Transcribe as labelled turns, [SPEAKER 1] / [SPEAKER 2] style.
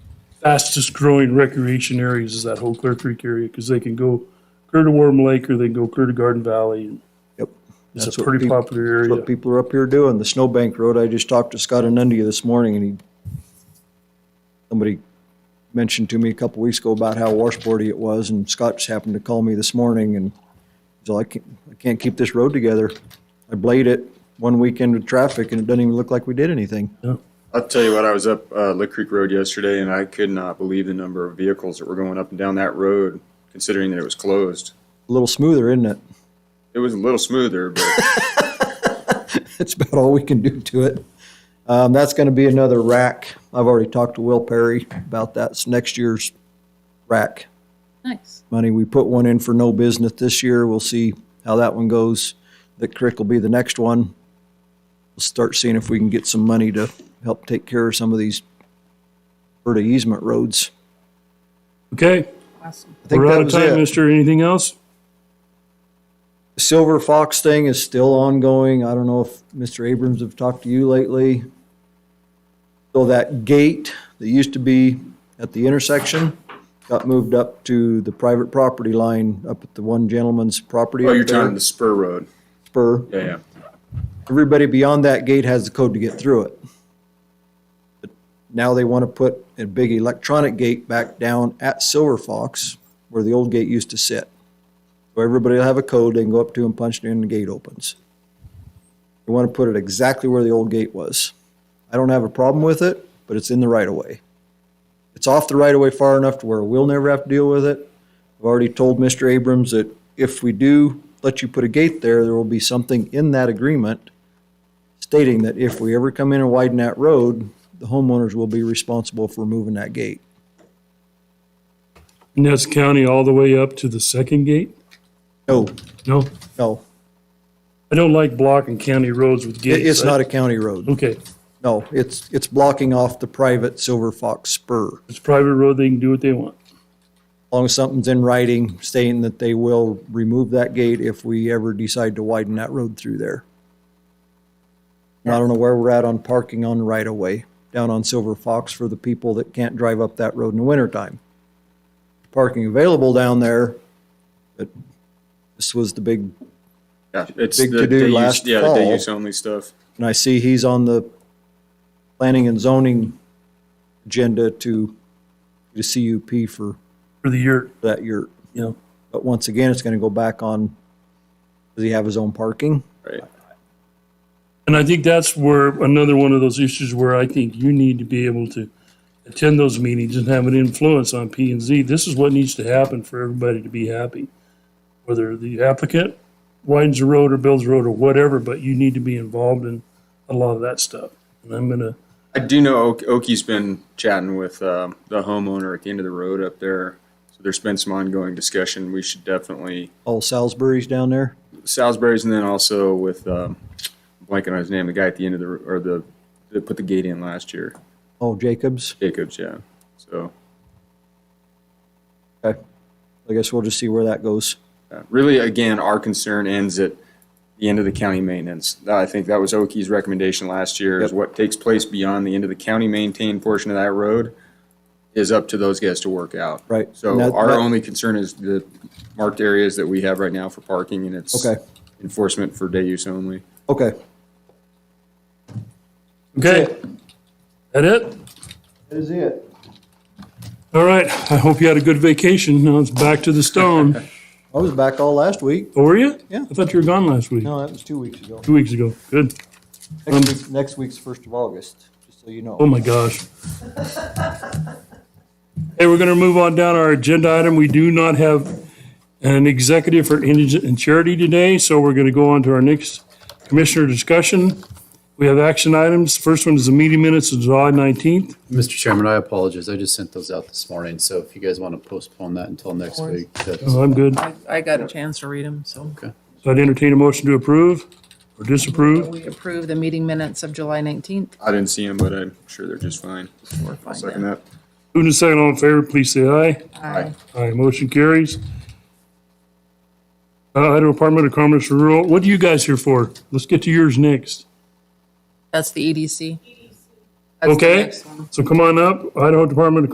[SPEAKER 1] fastest growing recreation areas is that whole Clear Creek area, because they can go clear to Warm Lake or they can go clear to Garden Valley. and
[SPEAKER 2] Yep.
[SPEAKER 1] It's
[SPEAKER 2] That's
[SPEAKER 1] a
[SPEAKER 2] what
[SPEAKER 1] pretty
[SPEAKER 2] peop-
[SPEAKER 1] popular
[SPEAKER 2] That's
[SPEAKER 1] area.
[SPEAKER 2] what people are up here doing. The Snowbank Road, I just talked to Scott Anundia this morning and he, somebody mentioned to me a couple weeks ago about how washboardy it was and Scott just happened to call me this morning and he's like, I can't, I can't keep this road together. I blade it one weekend with traffic and it doesn't even look like we did anything.
[SPEAKER 3] I'll tell you what, I was up uh, Lick Creek Road yesterday and I could not believe the number of vehicles that were going up and down that road, considering that it was closed.
[SPEAKER 2] A little smoother, isn't it?
[SPEAKER 3] It was a little smoother, but
[SPEAKER 2] That's about all we can do to it. Um, that's gonna be another rack. I've already talked to Will Perry about that. It's next year's rack.
[SPEAKER 4] Nice.
[SPEAKER 2] money. We put one in for no business this year. We'll see how that one goes. The crick will be the next one. We'll start seeing if we can get some money to help take care of some of these Alberta easement roads.
[SPEAKER 1] Okay,
[SPEAKER 4] Awesome.
[SPEAKER 2] I think
[SPEAKER 1] we're
[SPEAKER 2] that
[SPEAKER 1] out of
[SPEAKER 2] was
[SPEAKER 1] time,
[SPEAKER 2] it.
[SPEAKER 1] mister. Anything else?
[SPEAKER 2] The Silver Fox thing is still ongoing. I don't know if Mr. Abrams have talked to you lately. So that gate that used to be at the intersection got moved up to the private property line up at the one gentleman's property.
[SPEAKER 3] oh,
[SPEAKER 2] up
[SPEAKER 3] you're
[SPEAKER 2] there,
[SPEAKER 3] talking the spur road.
[SPEAKER 2] Spur.
[SPEAKER 3] Yeah, yeah.
[SPEAKER 2] everybody beyond that gate has the code to get through it. But Now they want to put a big electronic gate back down at Silver Fox where the old gate used to sit. So everybody will have a code, they can go up to and punch it in and the gate opens. They want to put it exactly where the old gate was. I don't have a problem with it, but it's in the right of way. It's off the right of way far enough to where we'll never have to deal with it. I've already told Mr. Abrams that if we do let you put a gate there, there will be something in that agreement stating that if we ever come in and widen that road, the homeowners will be responsible for moving that gate.
[SPEAKER 1] And that's county all the way up to the second gate?
[SPEAKER 2] No,
[SPEAKER 1] No,
[SPEAKER 2] no,
[SPEAKER 1] I don't like blocking county roads with
[SPEAKER 2] it-
[SPEAKER 1] gates.
[SPEAKER 2] it's
[SPEAKER 1] I-
[SPEAKER 2] not a county road.
[SPEAKER 1] Okay,
[SPEAKER 2] No, it's, it's blocking off the private Silver Fox spur.
[SPEAKER 1] it's private road, they can do what they want.
[SPEAKER 2] As long as something's in writing stating that they will remove that gate if we ever decide to widen that road through there. And I don't know where we're at on parking on right of way, down on Silver Fox for the people that can't drive up that road in the wintertime. Parking available down there, but this was the big,
[SPEAKER 3] Yeah, it's
[SPEAKER 2] Big
[SPEAKER 3] the
[SPEAKER 2] to-do
[SPEAKER 3] day use,
[SPEAKER 2] last
[SPEAKER 3] yeah, the day
[SPEAKER 2] fall.
[SPEAKER 3] use only stuff.
[SPEAKER 2] and I see he's on the planning and zoning agenda to, to CUP for
[SPEAKER 1] For the year,
[SPEAKER 2] that year.
[SPEAKER 1] you know,
[SPEAKER 2] But once again, it's gonna go back on, does he have his own parking?
[SPEAKER 3] Right.
[SPEAKER 1] And I think that's where another one of those issues where I think you need to be able to attend those meetings and have an influence on P and Z. This is what needs to happen for everybody to be happy. Whether the applicant widens the road or builds a road or whatever, but you need to be involved in a lot of that stuff. And I'm gonna,
[SPEAKER 3] I do know Ok- Oki's been chatting with um, the homeowner at the end of the road up there. So there's been some ongoing discussion. We should definitely
[SPEAKER 2] All Salisbury's down there?
[SPEAKER 3] Salisbury's and then also with um, blanking on his name, the guy at the end of the or the that put the gate in last year,
[SPEAKER 2] Oh, Jacobs?
[SPEAKER 3] Jacobs. Yeah. So
[SPEAKER 2] Okay. I guess we'll just see where that goes.
[SPEAKER 3] uh, really, again, our concern ends at the end of the county maintenance. I think that was Oki's recommendation last year. Is
[SPEAKER 2] Yep.
[SPEAKER 3] what takes place beyond the end of the county maintained portion of that road is up to those guys to work out.
[SPEAKER 2] Right.
[SPEAKER 3] So
[SPEAKER 2] And that-
[SPEAKER 3] our
[SPEAKER 2] that-
[SPEAKER 3] only concern is the marked areas that we have right now for parking and it's
[SPEAKER 2] Okay.
[SPEAKER 3] enforcement for day use only.
[SPEAKER 2] Okay.
[SPEAKER 1] okay, that it?
[SPEAKER 2] That is it.
[SPEAKER 1] All right, I hope you had a good vacation. Now it's back to the stone.
[SPEAKER 2] I was back all last week.
[SPEAKER 1] Oh, Were you?
[SPEAKER 2] Yeah.
[SPEAKER 1] I thought you were gone last week,
[SPEAKER 2] No, that was two weeks ago.
[SPEAKER 1] two weeks ago. Good.
[SPEAKER 2] Next week, next week's first of August, just so you know.
[SPEAKER 1] Oh my gosh. Hey, we're going to move on down our agenda item. We do not have an executive for indigent and charity today, so we're going to go on to our next commissioner discussion. We have action items. First one is the meeting minutes of July 19th.
[SPEAKER 5] Mr. Chairman, I apologize. I just sent those out this morning, so if you guys want to postpone that until next week, that's
[SPEAKER 1] So I'm good.
[SPEAKER 4] I, I got a chance to read them, so
[SPEAKER 1] So I'd entertain a motion to approve or disapprove.
[SPEAKER 4] we approve the meeting minutes of July nineteenth.
[SPEAKER 3] I didn't see them, but I'm sure they're just fine. I'll second that.
[SPEAKER 1] Who in second all in favor, please say aye.
[SPEAKER 4] Aye.
[SPEAKER 1] Aye, motion carries. Uh, Idaho Department of Commerce Rural, what are you guys here for? Let's get to yours next.
[SPEAKER 4] That's the E EDC. That's the
[SPEAKER 1] Okay,
[SPEAKER 4] next one.
[SPEAKER 1] so come on up, Idaho Department of